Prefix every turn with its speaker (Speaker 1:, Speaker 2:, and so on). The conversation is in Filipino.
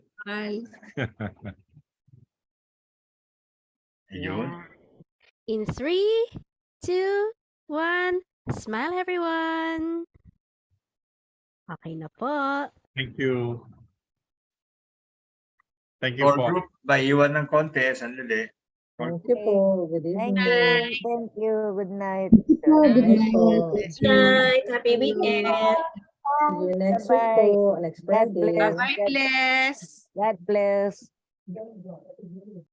Speaker 1: Ay,
Speaker 2: Yun.
Speaker 3: Mm.
Speaker 4: Yeah. In three, two, one, smile everyone! Okay na po.
Speaker 2: Thank you. Thank you
Speaker 3: Or
Speaker 2: po.
Speaker 3: group by iwan ng konti, sandali.
Speaker 5: Thank you po. Good
Speaker 6: Thank
Speaker 5: evening.
Speaker 6: you. Thank you. Good night.
Speaker 1: good
Speaker 5: Good
Speaker 1: night.
Speaker 5: night po.
Speaker 3: Thank you.
Speaker 7: night. Happy weekend.
Speaker 5: See you next week
Speaker 6: Bye-bye.
Speaker 5: po. Next
Speaker 6: God
Speaker 5: Friday.
Speaker 6: bless.
Speaker 7: God bless.
Speaker 6: God bless.